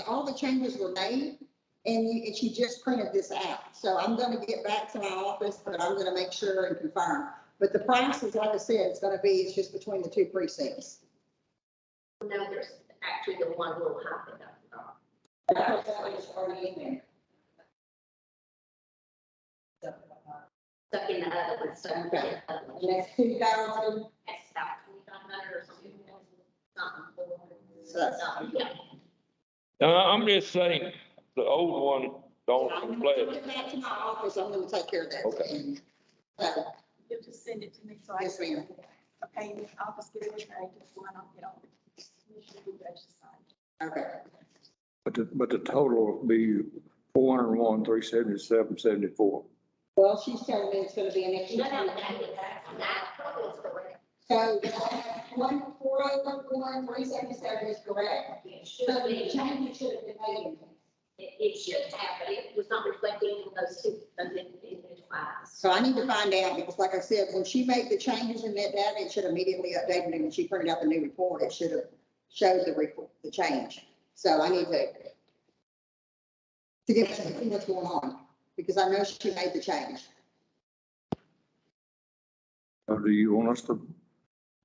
all the changes were made, and you, and she just printed this out. So I'm gonna get back to my office, but I'm gonna make sure and confirm. But the price is, like I said, it's gonna be, it's just between the two precincts. No, there's actually the one little half of that. uh, That was already in there. Stuck in the other one, stuck in Okay. the other one. And that's two thousand, It's about twenty-five hundred or something. So that's- Something, yeah. No, Uh, I'm just saying, the old one don't I'm gonna comply. get back to my office, I'm gonna take care of that. Okay. So, You'll just send it to me, so I. Yes, can- ma'am. Okay, and I'll just get it, I just want to, you know. you should do that, just sign it. Okay, But the, but the total will be four hundred and one, three seventy-seven, seventy-four. well, she's telling me it's gonna be an extra. No, no, that, that, that total is correct. So one, four oh one, three seventy-seven is correct. It should So the be, change should have been made. it, it should have, but it was not reflected in those two, those individual files. So I need to find out, because like I said, when she made the changes in that data, it should immediately update it. And when she printed out the new report, it should have showed the report, the change. So I need to to get back to see what's going on, because I know she made the change. So do you want us to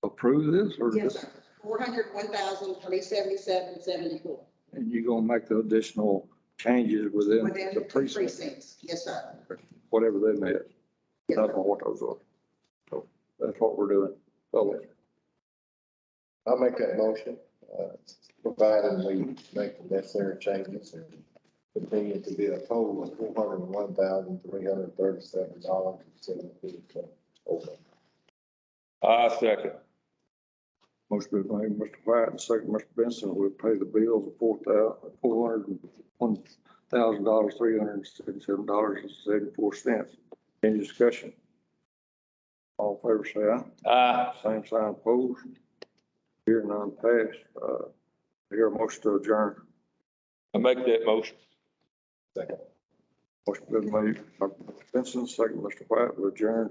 approve this or Yes, just, sir. Four hundred, one thousand, three seventy-seven, seventy-four. and you gonna make the additional changes within Within the the two precinct, precincts. Yes, sir. whatever that is? I Yes, don't sir. know what those are. So that's what we're doing. So I'll make that motion, uh, provided we make the necessary changes and continue to be a total of four hundred and one thousand, three hundred and thirty-seven dollars and seventy cents. Okay. I second. most people think Mr. White and second Mr. Benson will pay the bills of four thousand, four hundred and one thousand dollars, three hundred and seventy-seven dollars and seventy-four cents. Any discussion? All in favor say aye. Aye. Same sign opposed. Here none passed. Uh, here a motion to adjourn. I make that motion. Second. Motion been made by Mr. Benson, second Mr. White, we adjourn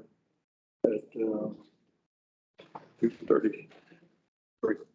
at, uh, two thirty-three.